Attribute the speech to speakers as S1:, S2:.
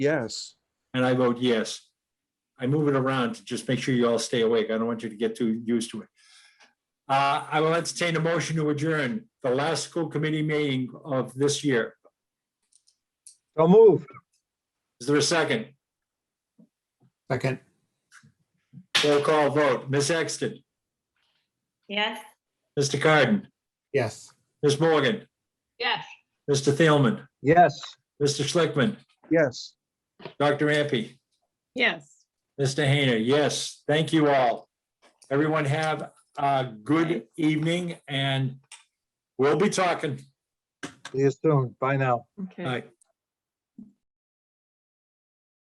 S1: Yes.
S2: And I vote yes. I move it around to just make sure you all stay awake. I don't want you to get too used to it. Uh, I will entertain a motion to adjourn the last school committee meeting of this year.
S3: So move.
S2: Is there a second?
S4: Second,
S2: Roll call vote. Ms. Exton,
S5: Yes.
S2: Mr. Carden,
S4: yes.
S2: Ms. Morgan,
S5: Yes.
S2: Mr. Thielman,
S3: Yes.
S2: Mr. Schlickman,
S1: Yes.
S2: Dr. Ampe,
S5: Yes.
S2: Mr. Hayner, yes. Thank you all. Everyone have a good evening and we'll be talking.
S3: See you soon. Bye now.
S2: All
S5: Okay.
S2: right.